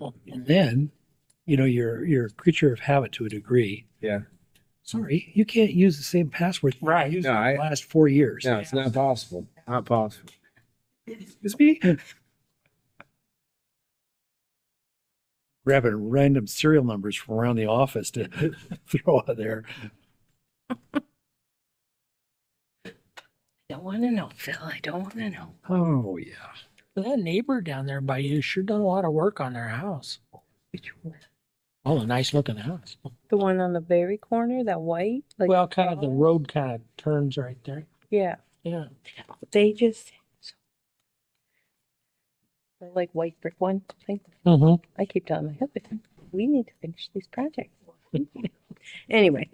and then, you know, you're you're a creature of habit to a degree. Yeah. Sorry, you can't use the same password. you've Right. used No, for I- the last four years. No, it's not possible. Not possible. Excuse me. Grabbing random serial numbers from around the office to throw out there. Don't want to know, Phil. I don't want to know. Oh yeah. But that neighbor down there by you sure done a lot of work on their house. Oh, a nice looking house. The one on the very corner, that white? Like well, kind of the collar? road kind of turns right there. Yeah. Yeah. They just. the, Like white brick one. I think Mm-hmm. I keep telling my husband, we need to finish these projects. anyway,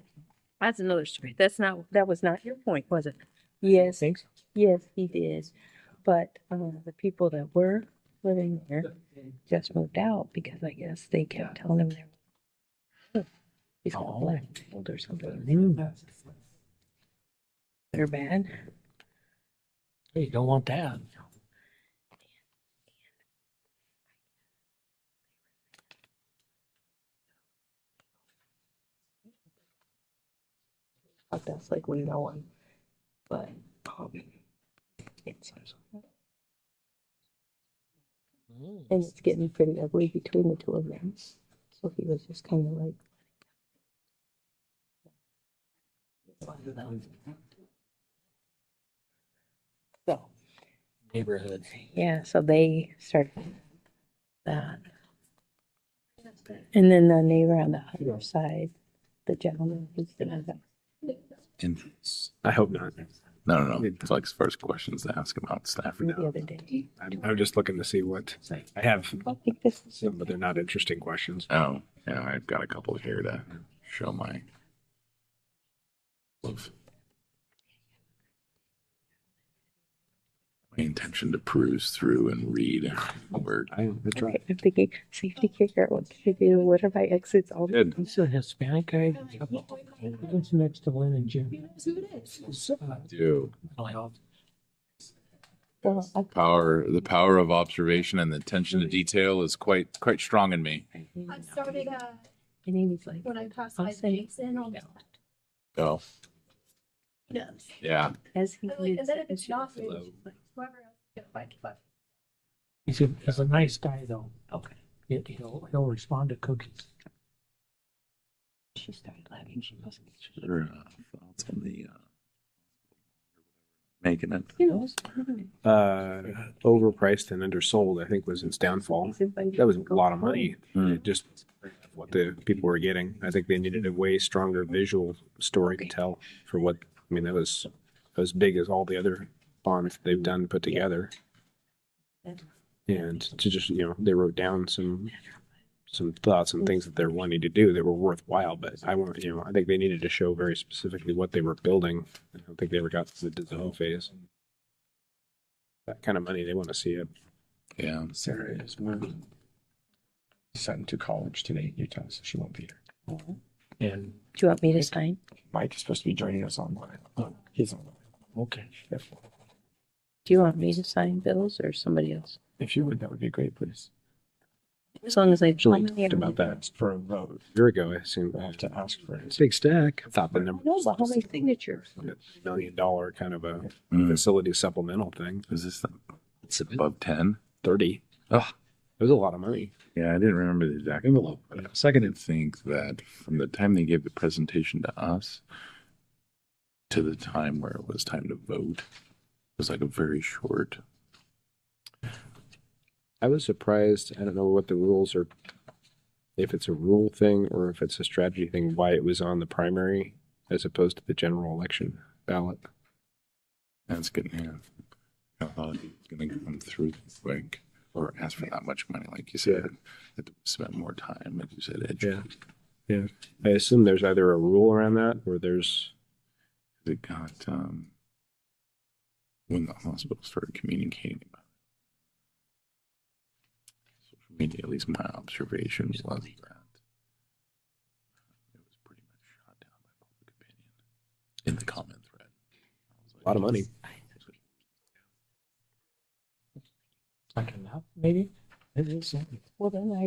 that's another story. That's not, that was not your point, was it? Yes, Thanks. yes, he did. But uh, the people that were living there just moved out because I guess they kept telling him they're. He's got Oh. blackmailed or something. Mm. They're bad. Hey, you don't want that. But that's like we know him. But um, it's and it's getting pretty ugly between the two of them. So he was just kind of like. So Neighborhood. yeah, so they started that. And then the neighbor on the other side, the gentleman who's the And I hope not. no, no, no. It's like his first questions to ask about staff. the other day. I'm, I'm just looking to see what I have I think this is some, but they're not interesting questions. Oh, yeah, I've got a couple here to show my love. My intention to peruse through and read word. I, that's right. Okay, I'm thinking safety kicker. What can I do? What if I exits all? Good. He's a Hispanic guy. He's next to Lynn and Jim. uh, Do Oh, Well, I- power the power of observation and the attention to detail is quite quite strong in me. I started uh, And Amy's like, when I passed I'll by say- the Jason on Oh, the yeah. as he Really? did. Is that a as she- knock? she's like, whoever else get a bite to bite. He's a, he's a nice guy though. Okay. He- He'll, he'll respond to cookies. She started laughing. She goes, Sure, uh, Thoughts on the uh, making it. you know, it's- Uh, overpriced and undersold, I think, was its downfall. it's invited That was to a go lot of home. money. Hmm. Just what the people were getting. I think they needed a way stronger visual story to tell for what, I mean, that was as big as all the other bonds they've done put together. And to just, you know, they wrote down some, some thoughts and things that they're wanting to do that were worthwhile, but I want, you know, I think they needed to show very specifically what they were building. I don't think they ever got to the design phase. That kind of money, they want to see it. Yeah. Sarah is moving son to college today, Utah, so she won't be here. And, Do you want me to sign? Mike is supposed to be joining us online. Oh, he's online. okay. If, Do you want me to sign bills or somebody else? if you would, that would be great, please. As long as I. Julie I'm talked here. about that. That's for a vote. A year ago, I assume. We'll have to ask for it. It's a big stack. I thought the number No, but how many signatures? million dollar kind of a Mm. facility supplemental thing. Is this the, it's above ten? Thirty. Oh, It was a lot of money. yeah, I didn't remember the exact envelope, but I second to think that from the time they gave the presentation to us to the time where it was time to vote was like a very short. I was surprised. I don't know what the rules are. If it's a rule thing or if it's a strategy thing, why it was on the primary as opposed to the general election ballot. That's good. Yeah, I thought it was going to come through this like or ask for that much money, like you said, had to spend more time, like you said, educate. I assume there's either a rule around that or there's It got um when the hospital started communicating about it. social media. At least my observation was that it was pretty much shot down by public opinion in the comment thread. I was like, a lot of money. Like enough, maybe? It is. Well, then I